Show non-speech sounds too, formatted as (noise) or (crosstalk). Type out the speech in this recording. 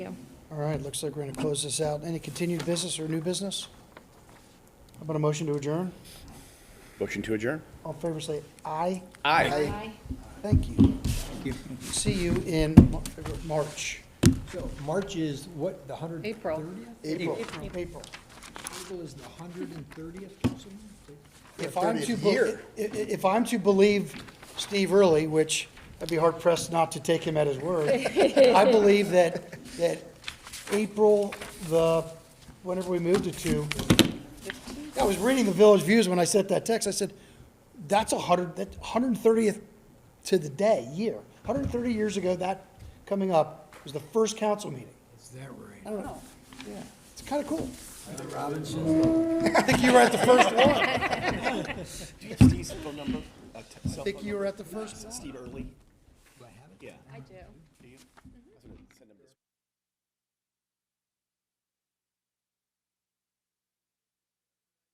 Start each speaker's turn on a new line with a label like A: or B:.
A: All right, looks like we're going to close this out. Any continued business or new business? How about a motion to adjourn?
B: Motion to adjourn?
A: All in favor, say aye.
B: Aye.
A: Thank you. See you in Mar- March,
C: So March is what, the hundred thirtieth?
D: April.
A: April, April.
C: April is the hundred and thirtieth or something?
A: If I'm to,
B: 30th
A: be- i- i-
B: year.
A: if I'm to believe Steve Early, which I'd be hard pressed not to take him at his
C: (laughs)
A: word, I believe that, that April, the, whenever we moved it to, I was reading the Village Views when I sent that text, I said, that's a hundred, that hundred and thirtieth to the day, year. Hundred and thirty years ago, that coming up was the first council meeting.
C: Is that right?
A: I don't know. Yeah, it's kind of cool.
C: The Robinsons,
A: I think you were at the first one. I
B: Do you have Steve's phone number? Uh, I
A: think you were at the first one.
B: Steve Early?
C: do I have it?
B: Yeah.
D: I do.